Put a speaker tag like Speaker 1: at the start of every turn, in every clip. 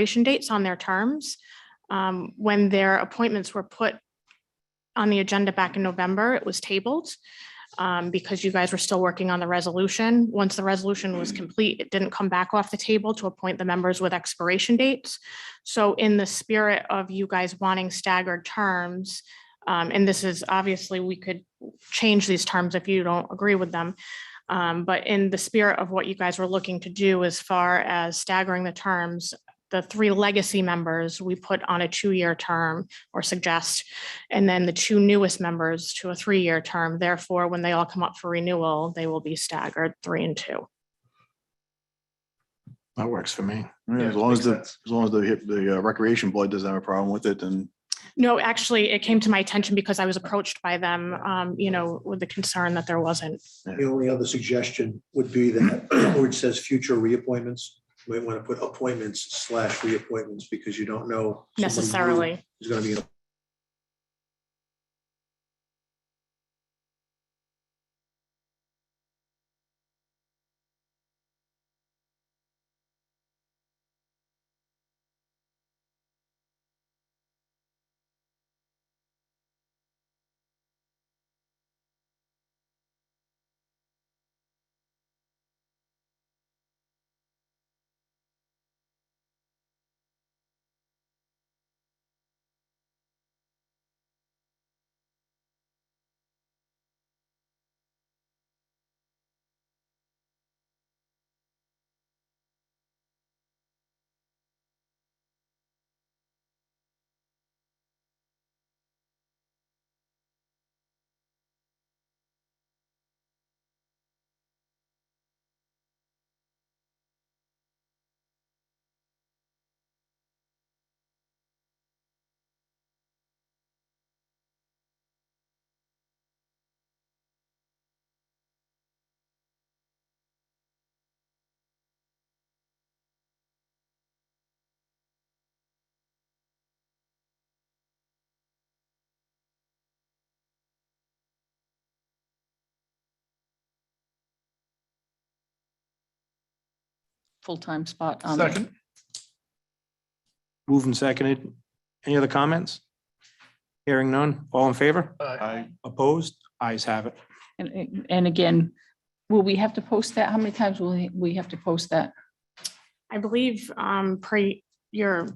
Speaker 1: expiration dates on their terms. Um, When their appointments were put on the agenda back in November, it was tabled um, because you guys were still working on the resolution. Once the resolution was complete, it didn't come back off the table to appoint the members with expiration dates. So in the spirit of you guys wanting staggered terms, um, and this is obviously, we could change these terms if you don't agree with them. Um, But in the spirit of what you guys were looking to do as far as staggering the terms, the three legacy members we put on a two-year term or suggest, and then the two newest members to a three-year term. Therefore, when they all come up for renewal, they will be staggered three and two.
Speaker 2: That works for me.
Speaker 3: Yeah,
Speaker 2: As long as
Speaker 3: makes
Speaker 2: the, as
Speaker 3: sense.
Speaker 2: long as the, the uh, recreation board doesn't have a problem with it, then
Speaker 1: No, actually, it came to my attention because I was approached by them, um, you know, with the concern that there wasn't.
Speaker 4: The only other suggestion would be that where it says future reappointments, you might want to put appointments slash reappointments because you don't know. someone new
Speaker 1: Necessarily.
Speaker 4: Is going to be. in-
Speaker 5: full-time spot on. there.
Speaker 3: Second,
Speaker 6: Moved and seconded. Any other comments? Hearing none. All in favor?
Speaker 3: Aye.
Speaker 2: I,
Speaker 6: Opposed? Eyes have it.
Speaker 5: And, and again, will we have to post that? How many times will we- we have to post that?
Speaker 1: I believe, um, pre, your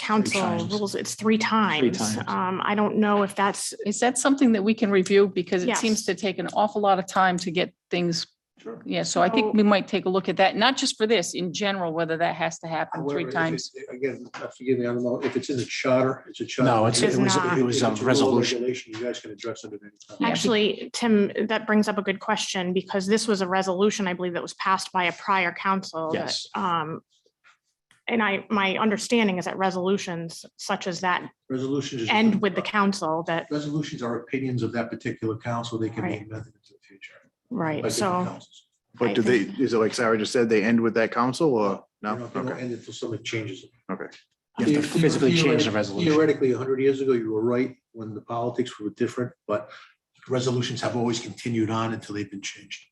Speaker 1: council
Speaker 6: times.
Speaker 1: rules, it's three times.
Speaker 6: times.
Speaker 1: Um, I don't know if that's,
Speaker 5: Is that something that we can review? Because it
Speaker 1: Yes.
Speaker 5: seems to take an awful lot of time to get things.
Speaker 3: Sure.
Speaker 5: Yeah, so I think
Speaker 1: So-
Speaker 5: we might take a look at that, not just for this, in general, whether that has to happen
Speaker 4: However,
Speaker 5: three
Speaker 4: if it-
Speaker 5: times.
Speaker 4: Again, forgive me, I don't know if it's in the charter, it's a charter.
Speaker 6: No, it's-
Speaker 1: it was-
Speaker 4: If
Speaker 6: it was
Speaker 4: it's
Speaker 6: a
Speaker 4: rule or
Speaker 6: resolution.
Speaker 4: Regulation, you guys can address it at any time.
Speaker 5: Yeah, be-
Speaker 1: actually, Tim, that brings up a good question because this was a resolution, I believe, that was passed by a prior council. that,
Speaker 6: Yes.
Speaker 1: Um, and I, my understanding is that resolutions such as that
Speaker 4: Resolutions. is-
Speaker 1: end with the council that,
Speaker 4: Resolutions are opinions of that particular council. They can be
Speaker 1: Right.
Speaker 4: amended into the future. by
Speaker 1: right,
Speaker 4: different
Speaker 1: so.
Speaker 4: councils.
Speaker 1: I
Speaker 2: but do they,
Speaker 1: think-
Speaker 2: is it like Sarah just said, they end with that council or
Speaker 4: They
Speaker 2: no?
Speaker 4: don't- they don't
Speaker 2: Okay.
Speaker 4: End until someone changes it.
Speaker 6: You have to physically change the resolution.
Speaker 4: Theoretically, hundred years ago, you were right when the politics were different, but resolutions have always continued on until they've been changed.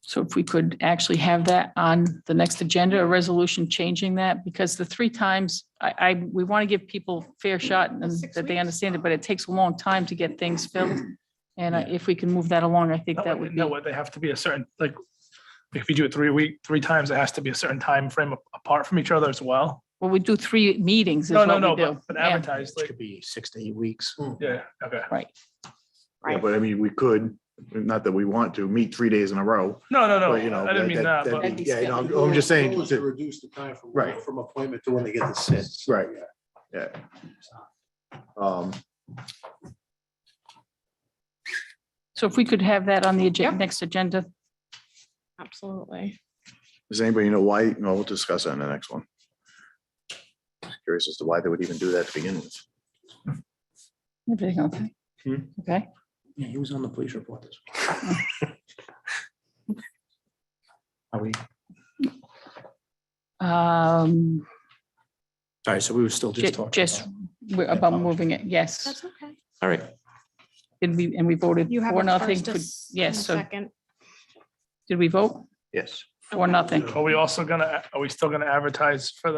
Speaker 5: So if we could actually have that on the next agenda, a resolution changing that, because the three times, I, I, we want to give people
Speaker 7: Mm,
Speaker 5: fair shot and
Speaker 1: Six
Speaker 5: that they
Speaker 1: weeks.
Speaker 5: understand it, but it takes a long time to get things filled. And I- if we can move that along, I think that would be.
Speaker 7: No, what they have to be a certain, like, if you do it three week, three times, it has to be a certain time frame a- apart from each other as well.
Speaker 5: Well, we do three meetings is
Speaker 7: No, no,
Speaker 5: what
Speaker 7: no,
Speaker 5: we
Speaker 7: but
Speaker 5: do.
Speaker 7: but
Speaker 5: Yeah.
Speaker 7: advertised,
Speaker 6: Which
Speaker 7: like,
Speaker 6: could be six to eight weeks.
Speaker 2: Hmm.
Speaker 7: yeah, okay.
Speaker 2: Yeah, But I mean, we could, not that we want to, meet three days in a row.
Speaker 7: No, no, no,
Speaker 2: But, you know,
Speaker 7: I didn't mean that, but
Speaker 5: that'd be
Speaker 2: Yeah, you know,
Speaker 4: The
Speaker 2: I'm- I'm just saying,
Speaker 4: goal is to
Speaker 2: that-
Speaker 4: Reduce the time from,
Speaker 2: Right.
Speaker 4: from appointment to when they get to sit.
Speaker 2: right, yeah. Um,
Speaker 5: So if we could have that on the agen- next agenda,
Speaker 1: Absolutely.
Speaker 2: does anybody know why? No, we'll discuss that in the next one. Curious as to why they would even do that to begin with.
Speaker 5: everything okay?
Speaker 6: Hmm.
Speaker 5: Okay,
Speaker 6: Yeah, he was on the police report this week. Are we,
Speaker 5: um,
Speaker 6: sorry, so we were still just
Speaker 5: ju-
Speaker 6: talking.
Speaker 5: just
Speaker 6: about-
Speaker 5: we're about moving it, yes.
Speaker 1: That's okay.
Speaker 6: All right,
Speaker 5: Did we, and we voted
Speaker 1: You have
Speaker 5: for
Speaker 1: a
Speaker 5: nothing,
Speaker 1: first
Speaker 5: could-
Speaker 1: as- and a
Speaker 5: yes, so
Speaker 1: second.
Speaker 5: did we vote?
Speaker 2: Yes.
Speaker 5: or nothing.
Speaker 7: Are we also gonna, are we still gonna advertise for the